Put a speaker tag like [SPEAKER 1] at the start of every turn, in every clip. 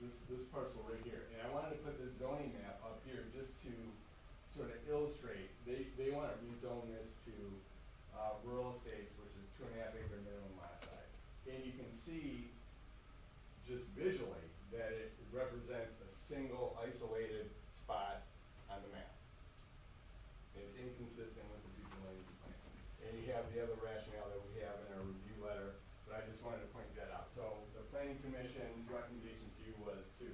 [SPEAKER 1] this, this parcel right here, and I wanted to put this zoning map up here just to sort of illustrate, they, they wanna rezone this to, uh, rural estates, which is two and a half acre minimum lot size. And you can see just visually that it represents a single isolated spot on the map. It's inconsistent with the future land use plan. And you have the other rationale that we have in our review letter, but I just wanted to point that out. So the planning commission's recommendation to you was to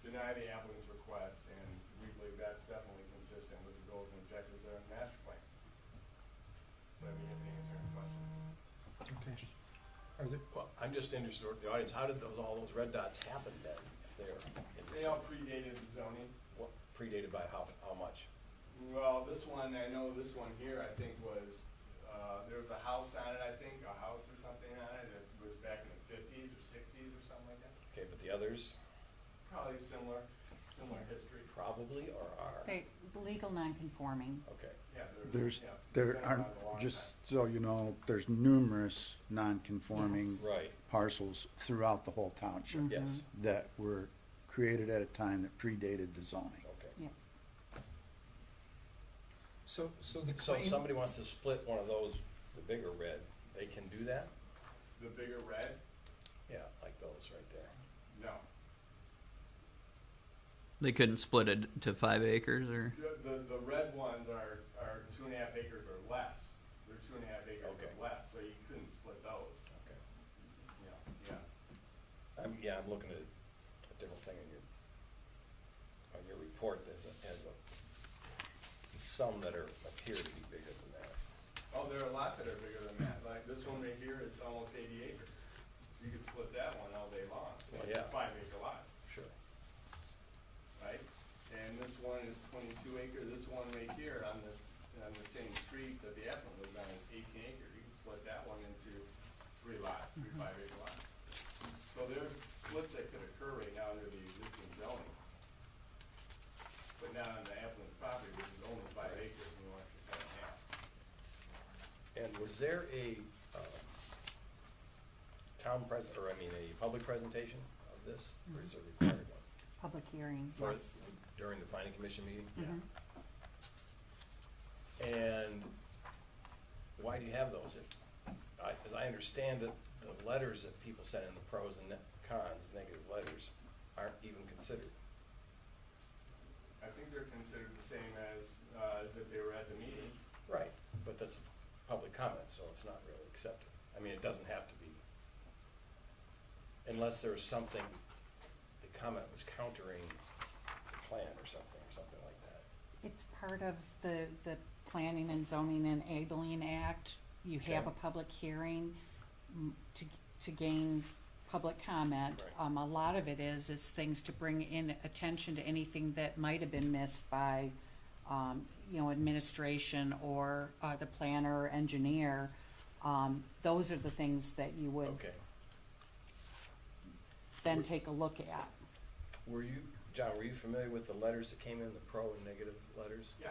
[SPEAKER 1] deny the applicant's request, and we believe that's definitely consistent with the goals and objectives of the master plan. So I mean, I'm answering questions.
[SPEAKER 2] Okay. Are there,
[SPEAKER 3] Well, I'm just interested, in the audience, how did those, all those red dots happen then, if they're in
[SPEAKER 1] They
[SPEAKER 3] this,
[SPEAKER 1] all predated the zoning.
[SPEAKER 3] what, predated by how, how much?
[SPEAKER 1] Well, this one, I know this one here, I think was, uh, there was a house on it, I think, a house or something on it, it was back in the fifties or sixties or something like that.
[SPEAKER 3] Okay, but the others
[SPEAKER 1] Probably similar, similar history.
[SPEAKER 3] probably or are?
[SPEAKER 4] They, legal non-conforming.
[SPEAKER 3] Okay,
[SPEAKER 1] Yeah, there,
[SPEAKER 2] there's,
[SPEAKER 1] yeah. it's
[SPEAKER 2] there
[SPEAKER 1] been
[SPEAKER 2] are,
[SPEAKER 1] around a long
[SPEAKER 2] just
[SPEAKER 1] time.
[SPEAKER 2] so you know, there's numerous non-conforming
[SPEAKER 4] Yes.
[SPEAKER 3] right,
[SPEAKER 2] parcels throughout the whole
[SPEAKER 5] Mm-hmm.
[SPEAKER 2] township
[SPEAKER 3] yes,
[SPEAKER 2] that were created at a time that predated the zoning.
[SPEAKER 3] okay.
[SPEAKER 4] Yeah.
[SPEAKER 5] So, so the
[SPEAKER 3] So if
[SPEAKER 5] claim,
[SPEAKER 3] somebody wants to split one of those, the bigger red, they can do that?
[SPEAKER 1] The bigger red,
[SPEAKER 3] Yeah, like those right there.
[SPEAKER 1] no.
[SPEAKER 6] They couldn't split it to five acres or
[SPEAKER 1] The, the, the red ones are, are two and a half acres or less. They're two and a half acres
[SPEAKER 3] Okay.
[SPEAKER 1] or less, so you couldn't split those,
[SPEAKER 3] Okay.
[SPEAKER 1] you know, yeah.
[SPEAKER 3] I'm, yeah, I'm looking at a different thing in your, on your report, there's a, there's a, some that are, appear to be bigger than that.
[SPEAKER 1] Oh, there are a lot that are bigger than that, like this one right here is almost eighty acres. You could split that one all day long,
[SPEAKER 3] Well,
[SPEAKER 1] like
[SPEAKER 3] yeah.
[SPEAKER 1] five acre lots,
[SPEAKER 3] Sure.
[SPEAKER 1] right? And this one is twenty-two acre, this one right here on this, on the same street that the applicant lives on is eighteen acre. You could split that one into three lots, three five acre lots. So there's splits that could occur right now under the existing zoning. But not on the applicant's property, which is only five acres, and he wants to cut it in half.
[SPEAKER 3] And was there a um, town pres, or I mean, a public presentation of this, or is it required one?
[SPEAKER 4] Public hearing.
[SPEAKER 3] For-
[SPEAKER 4] yes.
[SPEAKER 3] During the planning commission meeting?
[SPEAKER 4] Mhm.
[SPEAKER 3] And why do you have those? If, I, as I understand it, the letters that people send in, the pros and ne- cons, negative letters, aren't even considered.
[SPEAKER 1] I think they're considered the same as, uh, as if they were at the meeting.
[SPEAKER 3] Right. But that's public comment, so it's not really accepted. I mean, it doesn't have to be. Unless there was something, the comment was countering the plan or something, or something like that.
[SPEAKER 4] It's part of the, the Planning and Zoning and Enabling Act. You have a
[SPEAKER 3] Okay.
[SPEAKER 4] public hearing mm, to, to gain public comment.
[SPEAKER 3] Right.
[SPEAKER 4] Um, a lot of it is, is things to bring in attention to anything that might have been missed by, um, you know, administration or, uh, the planner or engineer. Um, those are the things that you would
[SPEAKER 3] Okay.
[SPEAKER 4] then take a look at.
[SPEAKER 3] Were you, John, were you familiar with the letters that came in, the pro and negative letters?
[SPEAKER 1] Yeah.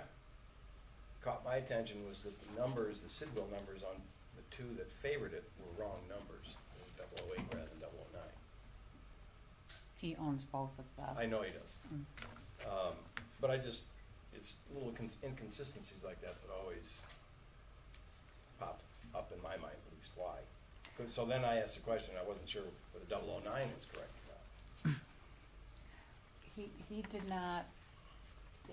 [SPEAKER 3] Caught my attention was that the numbers, the Sidwell numbers on the two that favored it were wrong numbers. Double oh eight rather than double oh nine.
[SPEAKER 4] He owns both of them.
[SPEAKER 3] I know he does. Um, But I just, it's little con- inconsistencies like that that always pop up in my mind, at least why. 'Cause- So then I asked the question, I wasn't sure whether double oh nine was correct or not.
[SPEAKER 4] He, he did not,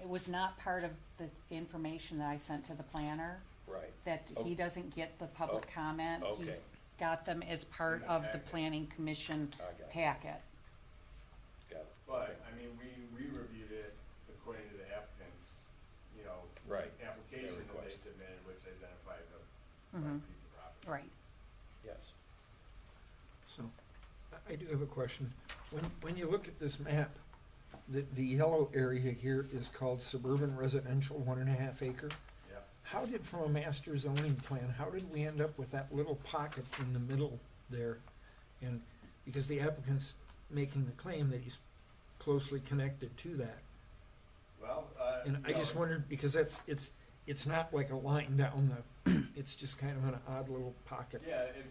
[SPEAKER 4] it was not part of the information that I sent to the planner,
[SPEAKER 3] Right,
[SPEAKER 4] that
[SPEAKER 3] Oh.
[SPEAKER 4] he doesn't get the public
[SPEAKER 3] Oh,
[SPEAKER 4] comment. He
[SPEAKER 3] okay.
[SPEAKER 4] Got them as part
[SPEAKER 1] In the
[SPEAKER 4] of the
[SPEAKER 1] packet.
[SPEAKER 4] planning commission
[SPEAKER 3] I got it.
[SPEAKER 4] packet.
[SPEAKER 3] got it.
[SPEAKER 1] But, I mean, we, we reviewed it according to the applicant's, you know,
[SPEAKER 3] Right.
[SPEAKER 1] application
[SPEAKER 3] Their
[SPEAKER 1] that they
[SPEAKER 3] request.
[SPEAKER 1] submitted, which identified the
[SPEAKER 4] Mhm.
[SPEAKER 1] the piece of property.
[SPEAKER 4] Right.
[SPEAKER 3] Yes.
[SPEAKER 5] so, I- I do have a question. When, when you look at this map, the, the yellow area here is called suburban residential, one and a half acre.
[SPEAKER 1] Yeah.
[SPEAKER 5] How did, from a master zoning plan, how did we end up with that little pocket in the middle there? And, because the applicant's making the claim that he's closely connected to that.
[SPEAKER 1] Well, uh.
[SPEAKER 5] And I
[SPEAKER 1] no,
[SPEAKER 5] just wondered, because that's, it's, it's not like a line down the, it's just kind of an odd little pocket.
[SPEAKER 1] Yeah, it